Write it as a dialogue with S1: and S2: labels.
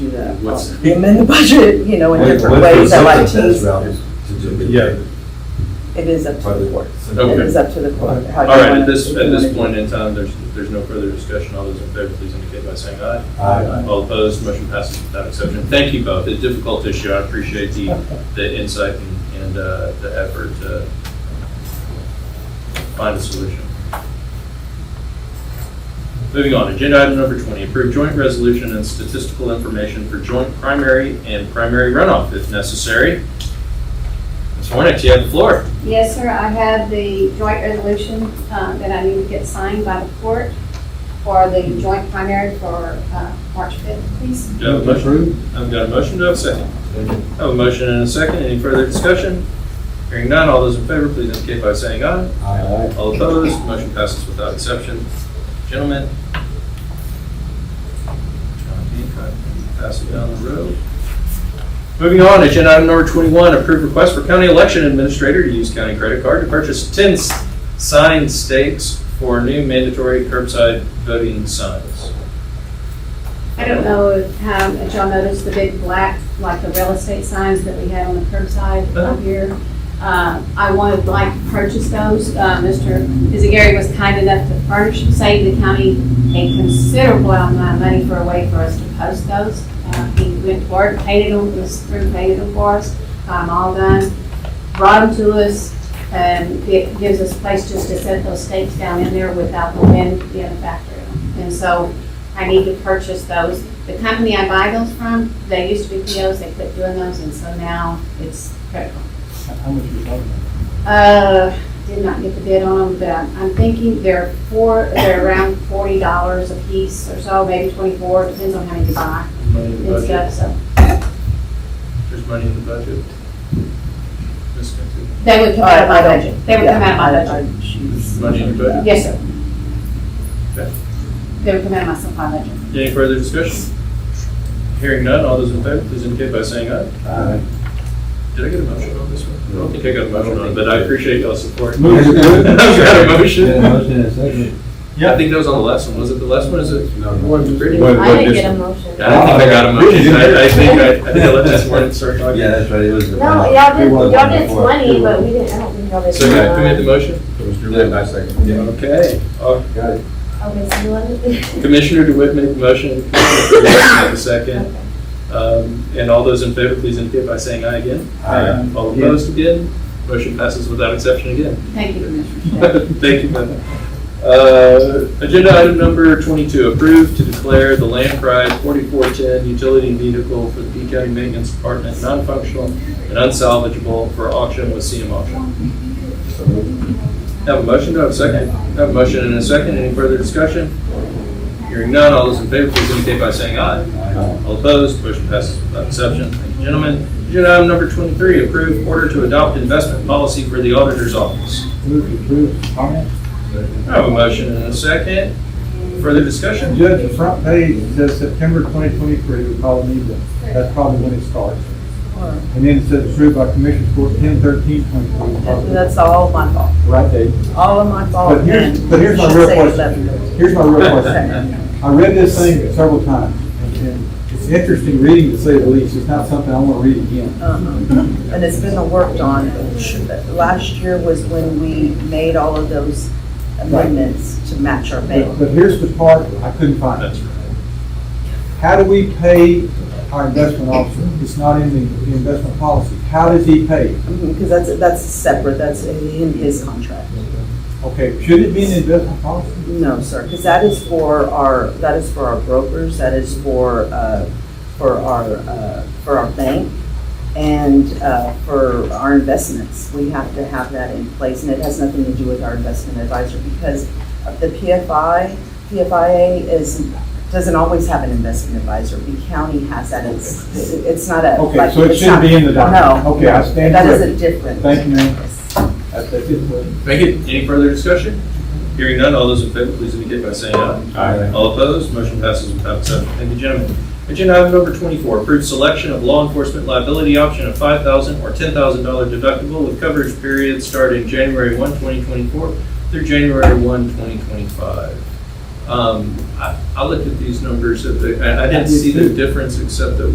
S1: what's,
S2: We amend the budget, you know, in
S3: What-
S2: different
S3: what the
S2: ways. I like
S3: result of
S2: to,
S3: this route is to do it.
S1: Yeah.
S2: it is up to
S3: By
S2: the
S3: the
S2: board.
S3: way.
S1: Okay.
S2: It is up to the board. how
S4: All
S2: you
S4: right,
S2: wanna-
S4: at this,
S2: if
S4: at
S2: you
S4: this
S2: wanna-
S4: point in time, there's, there's no further discussion. All those in favor, please indicate by saying aye.
S3: Aye.
S4: All opposed, motion passes without exception. Thank you both. It's a difficult issue. I appreciate the, the insight and- and uh, the effort to find a solution. Moving on, agenda item number 20, approve joint resolution and statistical information for joint primary and primary runoff if necessary. Ms. Hornick, you have the floor.
S5: Yes, sir, I have the joint resolution uh, that I need to get signed by the court for the joint primary for uh, March 5th, please.
S4: Do you have a motion? I've got a motion, do I have a second? I have a motion and a second, any further discussion? Hearing none, all those in favor, please indicate by saying aye.
S3: Aye.
S4: All opposed, motion passes without exception. Gentlemen. John Hancock, Pass it down the road. Moving on, agenda item number 21, approved request for county election administrator to use county credit card to purchase 10 s- sign stakes for new mandatory curbside voting signs.
S5: I don't know if um, if y'all noticed the big black, like the real estate signs that we had on the curbside
S4: Uh-huh.
S5: up here. Uh, I would like to purchase those. Uh, Mr. Gary was kind enough to furnish, save the county a considerable amount of money for a way for us to post those. Uh, He went to work, painted them, this crew painted them for us, got them all done, brought them to us, and it gives us place just to set those stakes down in there without the wind being a factor. And so I need to purchase those. The company I buy those from, they used to be POs, they quit doing those, and so now it's critical.
S6: How much you talking
S5: Uh, did not get the bid on them, but I'm- I'm thinking they're four, they're around forty dollars a piece or so, maybe twenty-four, depends on how many you buy
S4: Money in the
S5: and
S4: budget.
S5: stuff, so.
S4: There's money in the budget. Ms. Cantu,
S5: They would come out of my budget, they would come out of my
S2: Yeah,
S5: budget.
S2: I- I choose-
S4: Money in the budget.
S5: Yes, sir.
S4: Okay.
S5: They would come out of my supply budget.
S4: Any further discussion? Hearing none, all those in favor, please indicate by saying aye.
S3: Aye.
S4: Did I get a motion on this one? I don't think I got a motion on it, but I appreciate y'all's support.
S3: Move to
S4: I've got
S3: approve.
S4: a
S3: Yeah,
S4: motion.
S3: motion and second.
S4: I think that was on the last one. Was it the last one? Is it?
S3: No.
S4: One, three?
S3: What-
S7: I
S3: what
S7: didn't
S3: this-
S7: get a motion.
S4: I don't think I got a motion. I, I think I, I think I let this one start talking.
S3: Ah. Yeah, that's right, it was.
S7: No, y'all
S3: It
S7: did,
S3: was
S7: y'all did
S3: before.
S7: twenty, but we didn't, I don't think y'all did.
S4: So can I commit the
S7: 21.
S4: motion?
S3: It was really nice second. Yeah,
S4: Okay. Uh,
S3: got it.
S7: Okay, so you wanted.
S4: Commissioner DeWitt made the motion. Commissioner Ferguson made the second. Um, and all those in favor, please indicate by saying aye again.
S3: Aye.
S4: All opposed again? Motion passes without exception again.
S5: Thank you, Commissioner.
S4: Thank you, Linda. Uh, Agenda item number 22, approved to declare the Land Pride 4410 utility vehicle for the P County Maintenance Department non-functional and unsalvageable for auction with CM Auction.
S3: So moved.
S4: Have a motion, do I have a second? Have a motion and a second, any further discussion? Hearing none, all those in favor, please indicate by saying aye.
S3: Aye.
S4: All opposed, motion passes without exception. Thank you, gentlemen. Agenda item number 23, approved order to adopt investment policy for the auditor's office.
S6: Move to approve, comment?
S4: I have a motion and a second. Further discussion?
S6: Judge, the front page says September 2023, we probably need that. That's probably when it starts. And then it says approved by Commissioners Court 10/13/23, probably
S2: That's all my fault,
S6: the right date.
S2: all of my fault.
S6: But here's-
S2: and
S6: but here's my
S2: should
S6: real
S2: say
S6: question.
S2: 11.
S6: Here's my real question. I read this thing several times, and- and it's interesting reading to say the least. It's not something I want to read again.
S2: Uh-huh. And it's been worked on. Last year was when we made all of those amendments to match our
S6: But
S2: bill.
S6: but here's the part I couldn't find.
S4: That's right.
S6: How do we pay our investment officer? It's not in the the investment policy. How does he pay?
S2: Because Mm-hmm, that's, that's separate, that's in his contract.
S6: Okay, should it be in the investment policy?
S2: No, sir, because that is for our, that is for our brokers, that is for, uh, for our, uh, for our bank and uh, for our investments. We have to have that in place, and it has nothing to do with our investment advisor because of the PFI, PFIA is, doesn't always have an investment advisor. The county has that, it's, it's not a.
S6: Okay,
S2: like,
S6: so it
S2: it's
S6: shouldn't
S2: not-
S6: be in the document.
S2: No.
S6: Okay, I
S2: no,
S6: stand
S2: That is
S6: corrected.
S2: a difference.
S6: Thank you, ma'am.
S2: Yes.
S6: That's that's it.
S4: Thank you. Any further discussion? Hearing none, all those in favor, please indicate by saying aye.
S3: Aye.
S4: All opposed, motion passes without exception. Thank you, gentlemen. Agenda item number 24, approved selection of law enforcement liability option of $5,000 or $10,000 deductible with coverage period starting January 1, 2024 through January 1, uh, 2025. Um, I I looked at these numbers, at the- I I didn't see the difference except that